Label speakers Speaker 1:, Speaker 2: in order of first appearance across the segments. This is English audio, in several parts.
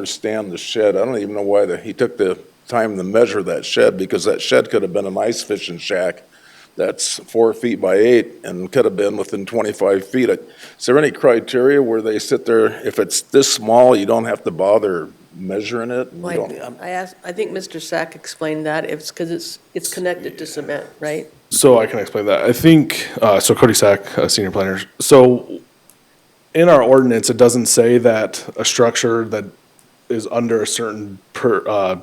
Speaker 1: understand the shed. I don't even know why the, he took the time to measure that shed, because that shed could have been an ice fishing shack that's four feet by eight and could have been within twenty-five feet. Is there any criteria where they sit there, if it's this small, you don't have to bother measuring it? You
Speaker 2: Like, um,
Speaker 1: don't-
Speaker 2: I asked, I think Mr. Sack explained that, it's because it's, it's connected to cement, right?
Speaker 3: So I can explain that. I think, uh, so Cody Sack, uh, senior planner. So in our ordinance, it doesn't say that a structure that is under a certain per, uh,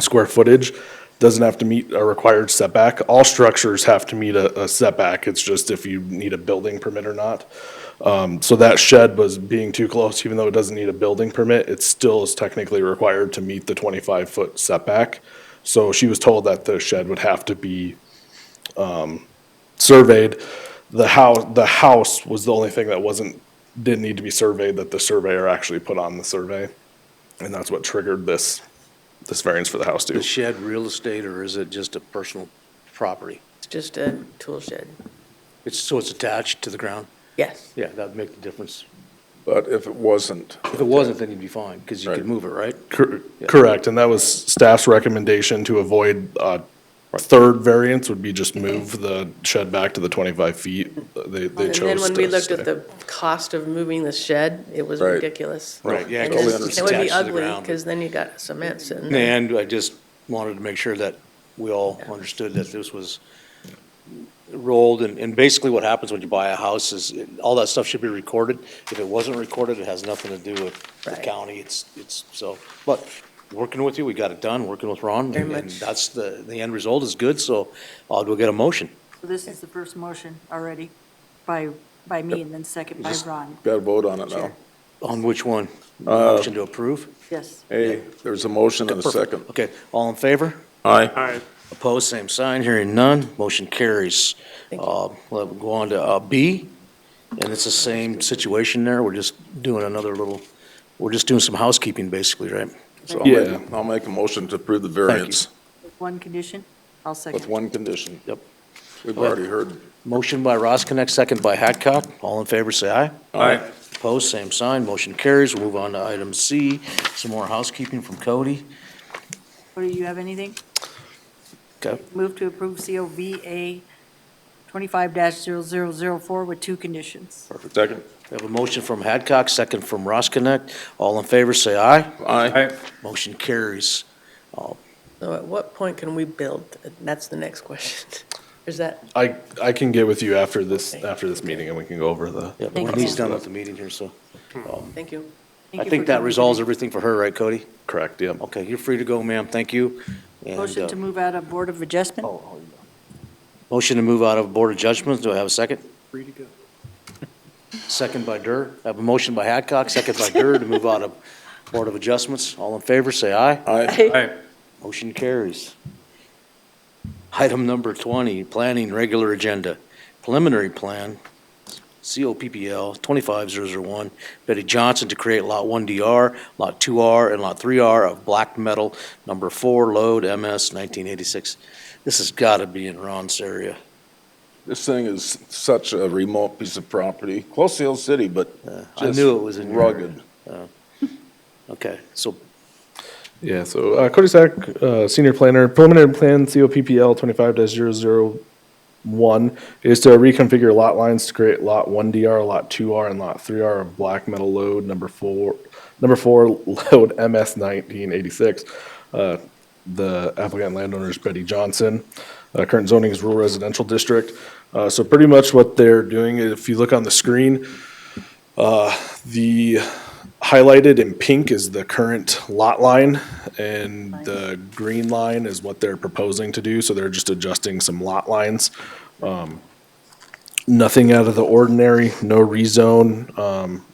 Speaker 3: square footage doesn't have to meet a required setback. All structures have to meet a, a setback. It's just if you need a building permit or not. Um, so that shed was being too close, even though it doesn't need a building permit, it still is technically required to meet the twenty-five foot setback. So she was told that the shed would have to be um, surveyed. The house, the house was the only thing that wasn't, didn't need to be surveyed, that the surveyor actually put on the survey. And that's what triggered this, this variance for the house too.
Speaker 4: Is shed real estate or is it just a personal property?
Speaker 2: It's just a tool shed.
Speaker 4: It's, so it's attached to the ground?
Speaker 2: Yes,
Speaker 4: Yeah, that'd make the difference.
Speaker 1: But if it wasn't,
Speaker 4: If it wasn't, then you'd be fine, because you
Speaker 1: Right.
Speaker 4: could move it, right?
Speaker 3: Cor- Correct, and that was staff's recommendation to avoid, uh, third variance would be just move the shed back to the twenty-five feet. They, they
Speaker 2: and
Speaker 3: chose
Speaker 2: then when we
Speaker 3: to
Speaker 2: looked at
Speaker 3: stay.
Speaker 2: the cost of moving the shed, it was
Speaker 1: Right.
Speaker 2: ridiculous.
Speaker 1: Right, yeah,
Speaker 2: And
Speaker 1: 'cause
Speaker 2: then
Speaker 1: it's
Speaker 2: It would be
Speaker 4: attached to the
Speaker 2: ugly,
Speaker 4: ground.
Speaker 2: because then you got cement sitting there.
Speaker 4: And I just wanted to make sure that we all understood that this was rolled, and, and basically what happens when you buy a house is, it- all that stuff should be recorded. If it wasn't recorded, it has nothing to do with the
Speaker 2: Right.
Speaker 4: county, it's, it's, so, but working with you, we got it done, working with Ron.
Speaker 2: Very
Speaker 4: and- And
Speaker 2: much.
Speaker 4: that's the, the end result is good, so I'll go get a motion.
Speaker 5: So This is the first motion already by, by me and then second by Ron.
Speaker 1: gotta vote on it now.
Speaker 4: On which one?
Speaker 1: Uh,
Speaker 4: Motion to approve?
Speaker 5: Yes.
Speaker 1: Hey, there's a motion and a second.
Speaker 4: Okay, all in favor?
Speaker 1: Aye.
Speaker 4: Opposed, same sign, hearing none, motion carries.
Speaker 2: Thank you.
Speaker 4: Uh, We'll go on to uh, B, and it's the same situation there, we're just doing another little, we're just doing some housekeeping, basically, right?
Speaker 1: So I'll make-
Speaker 3: Yeah.
Speaker 1: I'll make a motion to approve the variance
Speaker 5: With one condition, I'll
Speaker 1: with
Speaker 5: second.
Speaker 1: one condition.
Speaker 4: Yep.
Speaker 1: We've already heard.
Speaker 4: Motion by Ross Connect, second by Hadcock, all in favor, say aye.
Speaker 1: Aye.
Speaker 4: Opposed, same sign, motion carries, we'll move on to item C, some more housekeeping from Cody.
Speaker 5: Cody, you have anything?
Speaker 4: Okay.
Speaker 5: Move to approve COVA 25-0004 with two conditions.
Speaker 1: Second.
Speaker 4: We have a motion from Hadcock, second from Ross Connect, all in favor, say aye.
Speaker 1: Aye.
Speaker 4: Motion carries.
Speaker 2: So at what point can we build? That's the next question. Is that,
Speaker 3: I, I can get with you after this,
Speaker 2: Okay.
Speaker 3: after this meeting and we can go over the.
Speaker 4: Yeah, but
Speaker 5: Thank
Speaker 4: we're
Speaker 5: you.
Speaker 4: almost done with the meeting here, so.
Speaker 2: thank you.
Speaker 5: Thank
Speaker 4: I
Speaker 5: you
Speaker 4: think that
Speaker 5: for coming.
Speaker 4: resolves everything for her, right, Cody?
Speaker 3: Correct, yep.
Speaker 4: Okay, you're free to go, ma'am, thank you. And,
Speaker 5: Motion
Speaker 4: uh,
Speaker 5: to move out of Board of
Speaker 1: Oh,
Speaker 5: Adjustment?
Speaker 4: Motion to move out of Board of Judgments, do I have a second? Free to go. Second by Dur, I have a motion by Hadcock, second by Dur to move out of Board of Adjustments. All in favor, say aye.
Speaker 1: Aye.
Speaker 4: Motion carries. Item number 20, planning regular agenda, preliminary plan, COPPL 25001, Betty Johnson to create Lot 1DR, Lot 2R, and Lot 3R of black metal, number 4 load, MS 1986. This has got to be in Ron's area.
Speaker 1: This thing is such a remote piece of property, close to Hill City, but
Speaker 4: I
Speaker 1: just
Speaker 4: knew it was in your area.
Speaker 1: rugged.
Speaker 4: Okay, so
Speaker 3: Yeah, so uh, Cody Sack, uh, senior planner, preliminary plan COPPL twenty-five dash is to reconfigure lot lines to create lot one DR, lot two R, and lot three R of black metal load number four, number four load MS nineteen eighty-six. Uh, the applicant landowner is Betty Johnson. Uh, current zoning is rural residential district. Uh, so pretty much what they're doing, if you look on the screen, uh, the highlighted in pink is the current lot line, and the green line is what they're proposing to do, so they're just adjusting some lot lines. Um, Nothing out of the ordinary, no rezone, um,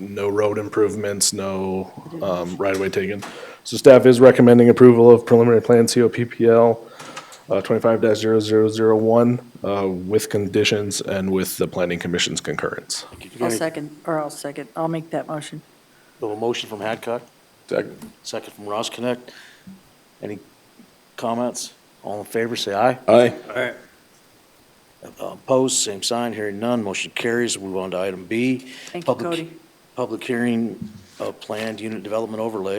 Speaker 3: no road improvements, no, um, right-of-way taken. So staff is recommending approval of preliminary plan COPPL, uh, twenty-five dash uh, with conditions and with the planning commission's concurrence.
Speaker 5: I'll second, or I'll second, I'll make that motion.
Speaker 4: we have a motion from Hadcock,
Speaker 1: Second.
Speaker 4: second from Ross Connect. Any comments? All in favor, say aye.
Speaker 1: Aye.
Speaker 4: Uh, Opposed, same sign, hearing none, motion carries. Move on to item B.
Speaker 5: Thank you,
Speaker 4: Public-
Speaker 5: Cody.
Speaker 4: Public hearing a planned unit development overlay